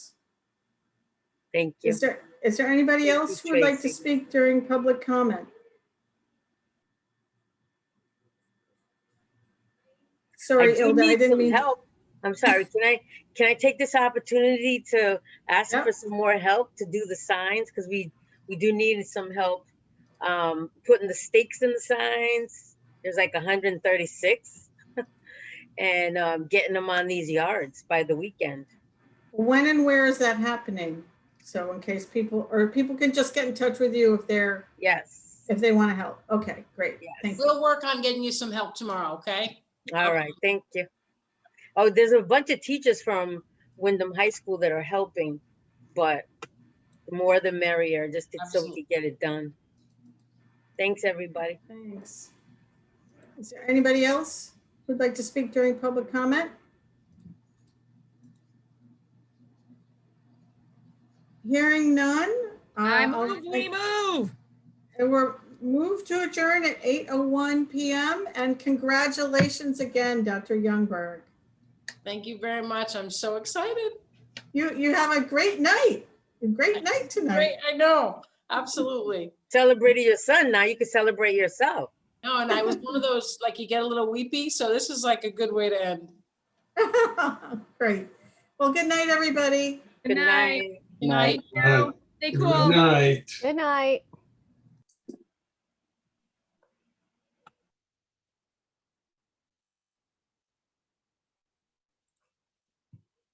Thank you. Is there, is there anybody Thank you, else who would like to Tracy. speak during public comment? Sorry, I do Ilda, I need didn't some mean, Help. I'm sorry. Can I, can I take this opportunity to ask Yeah. for some more help to do the signs? Because we, we do need some help um, putting the stakes in the signs. There's like 136. And um, getting them on these yards by the weekend. when and where is that happening? So in case people, or people can just get in touch with you if they're, Yes. if they want to help. Okay, great. Yes. Thank you. We'll work on getting you some help tomorrow, okay? All right. Thank you. Oh, there's a bunch of teachers from Wyndham High School that are helping, but the more the merrier, just to- so we Absolutely. could get it done. Thanks, everybody. Thanks. Is there anybody else who'd like to speak during public comment? Hearing none. uh, I I'll- move, we move. And we're moved to adjourn at 8:01 PM. And congratulations again, Dr. Youngberg. Thank you very much. I'm so excited. You, you have a great night, a great night tonight. Great, I know, absolutely. Celebrating your son now, you can celebrate yourself. No, and I was one of those, like you get a little weepy, so this is like a good way to end. Great. Well, good night, everybody. Good night. Good night. Stay cool. Good night. Good night.